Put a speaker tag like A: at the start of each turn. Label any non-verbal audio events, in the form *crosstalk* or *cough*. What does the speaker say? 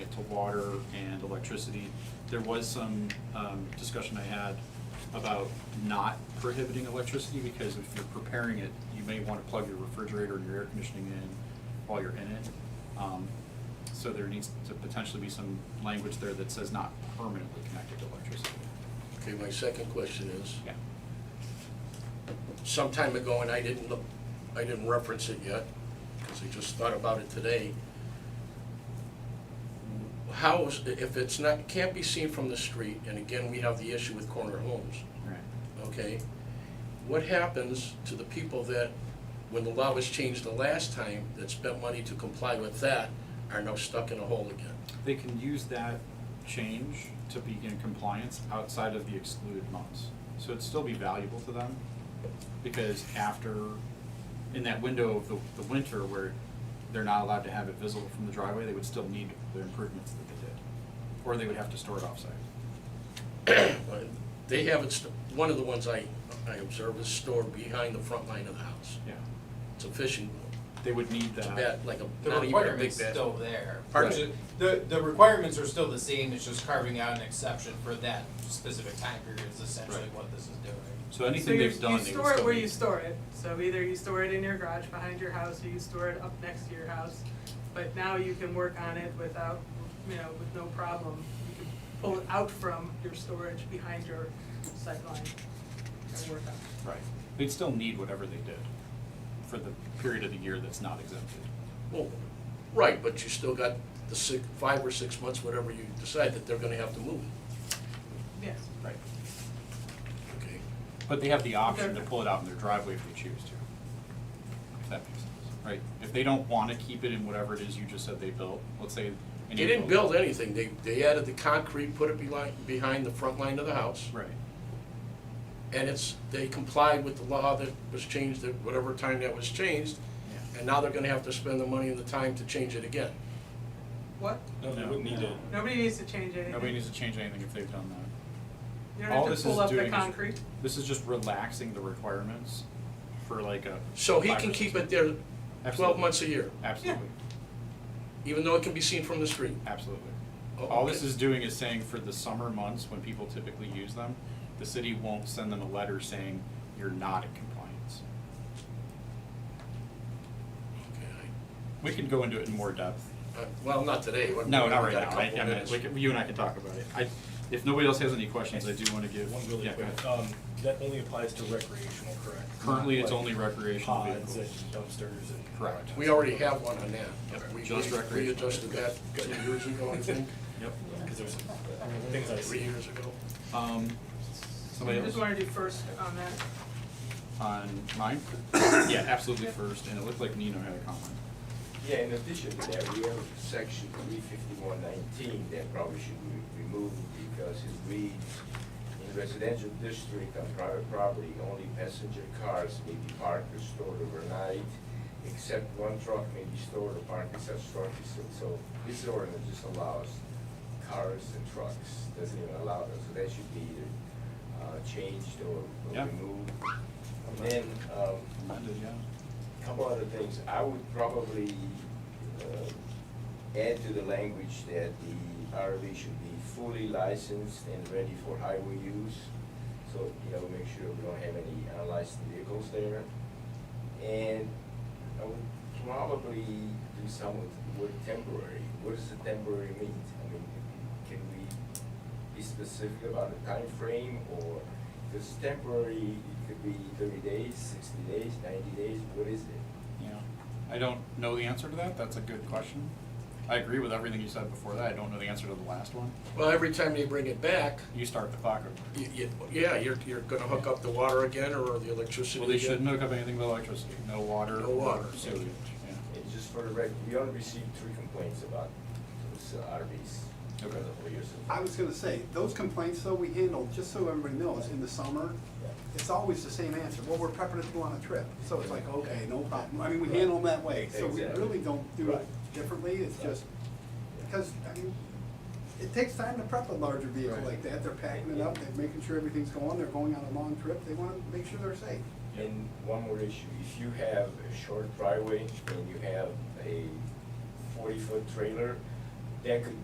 A: water and electricity. There was some um, discussion I had about not prohibiting electricity, because if you're preparing it, you may want to plug your refrigerator and your air conditioning in while you're in it. Um, So there needs to potentially be some language there that says not permanently connected to electricity.
B: Okay, my second question is,
A: Yeah.
B: some time ago, and I didn't look, I didn't reference it yet, because I just thought about it today. How is, if it's not, can't be seen from the street, and again, we have the issue with corner homes,
A: Right.
B: okay? What happens to the people that, when the law was changed the last time, that spent money to comply with that, are now stuck in a hole again? *coughs*
A: They can use that change to be in compliance outside of the excluded months. So it'd still be valuable to them because after, in that window of the, the winter where they're not allowed to have it visible from the driveway, they would still need the improvements that they did. Or they would have to store it offsite.
B: But They have it, st- one of the ones I, I observe is stored behind the front line of the house.
A: Yeah.
B: It's a fishing boat.
A: They would need
B: It's a
A: that.
B: bat, like a,
C: The
B: not even a big
C: requirement's
B: bat.
C: still there.
B: Pardon?
C: Which is- The, the requirements are still the same, it's just carving out an exception for that specific time period is essentially
A: Right.
C: what this is doing.
A: So
D: So
A: anything
D: you,
A: they've
D: you
A: done, they would
D: store it
A: still
D: where you
A: need.
D: store it, so either you store it in your garage behind your house, or you store it up next to your house. But now you can work on it without, you know, with no problem, you can pull it out from your storage behind your sight line and work on it.
A: Right. They'd still need whatever they did for the period of the year that's not exempted.
B: Well, right, but you still got the six, five or six months, whatever you decide, that they're gonna have to move,
D: Yes,
A: Right.
B: okay?
A: But they have the option to
D: Okay.
A: pull it out in their driveway if they choose to. If that makes sense, right? If they don't wanna keep it in whatever it is you just said they built, let's say.
B: They didn't build anything, they, they added the concrete, put it behind, behind the front line of the house.
A: Right,
B: And it's, they complied with the law that was changed, at whatever time that was changed,
A: yeah.
B: and now they're gonna have to spend the money and the time to change it again.
D: what?
E: No, they
A: No.
E: wouldn't need to.
D: Nobody needs to change anything.
A: Nobody needs to change anything if they've done that.
D: You
A: all
D: don't have
A: this
D: to
A: is
D: pull up the
A: doing is-
D: concrete.
A: This is just relaxing the requirements for like a.
B: So he
A: five or
B: can
A: six
B: keep
A: months.
B: it there twelve
A: Absolutely.
B: months a year,
A: Absolutely,
B: even though it can be seen from the street.
A: absolutely.
B: Oh,
A: All this
B: okay.
A: is doing is saying for the summer months, when people typically use them, the city won't send them a letter saying you're not in compliance.
B: Okay,
A: We can go into it in more depth
B: I- uh, Well, not today. We've
A: No, not
B: got
A: right
B: a
A: now. I,
B: couple
A: I mean,
B: minutes.
A: we can, you and I can talk about it. I, if nobody else has any questions, I do wanna give.
E: One really
A: yeah, go
E: quick,
A: ahead.
E: um, that only applies to recreational, correct?
A: Currently, it's
E: Like
A: only recreational
E: Pods and
A: vehicles.
E: dumpsters and.
A: Correct.
B: We already have one on that. We-
A: Just
B: we- We
A: recreational.
B: adjusted that two years ago, I think,
A: Yep.
E: Cause there's things I
B: three
E: see.
B: years ago.
A: Um,
D: I
A: somebody
D: just
A: else
D: wanna do first on that.
A: on mine? Yeah, absolutely first, and it looked like Nino had a comment.
F: Yeah, in addition to that, we have section three fifty-one nineteen that probably should be removed because it reads, in residential district on private property, only passenger cars may be parked or stored overnight, except one truck may be stored or parked in such structures. So- So this ordinance just allows cars and trucks, doesn't even allow them, so that should be either uh, changed or or
A: Yeah.
F: removed. And then, um,
A: Amended, yeah.
F: Couple other things, I would probably uh, add to the language that the RV should be fully licensed and ready for highway use. So, you know, make sure we don't have any unlicensed vehicles there. And I would probably do some with the word temporary. What does a temporary mean? I mean, can we be specific about the time frame, or, because temporary, it could be thirty days, sixty days, ninety days, what is it?
A: Yeah. I don't know the answer to that. That's a good question. I agree with everything you said before that. I don't know the answer to the last one.
B: Well, every time they bring it back,
A: You start the clock over.
B: y- y- yeah, you're, you're gonna hook up the water again or the electricity again.
A: Well, they shouldn't hook up anything with electricity, no water.
B: No water.
A: or Sewage, yeah.
F: And just for the record, we only received three complaints about those uh, RVs over the whole year. so-
G: I was gonna say, those complaints though, we handle, just so everybody knows, in the summer, it's always the same answer, well, we're prepping to go on a trip, so it's like, okay, no problem, I mean, we handle them that way, so we
F: Exactly.
G: really don't do it
F: Right.
G: differently, it's
F: Right.
G: just, because, I mean, it takes time to prep a larger vehicle
F: Right.
G: like that, they're packing it up, they're making sure everything's going, they're going on a long trip, they wanna make sure they're safe.
F: And one more issue, if you have a short driveway and you have a forty-foot trailer, that could